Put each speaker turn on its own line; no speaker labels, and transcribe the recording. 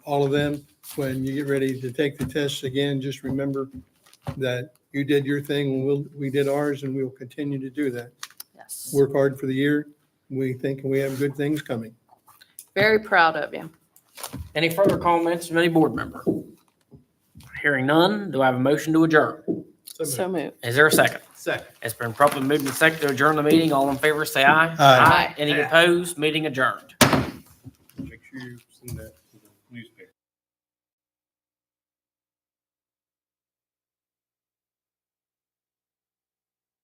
all of them, when you get ready to take the tests again, just remember that you did your thing, and we'll, we did ours, and we will continue to do that.
Yes.
Work hard for the year. We think we have good things coming.
Very proud of you.
Any further comments from any board member? Hearing none, do I have a motion to adjourn?
So moved.
Is there a second?
Second.
It's been properly moved and seconded to adjourn the meeting. All in favor, say aye.
Aye.
Any opposed? Meeting adjourned.
Make sure you send that.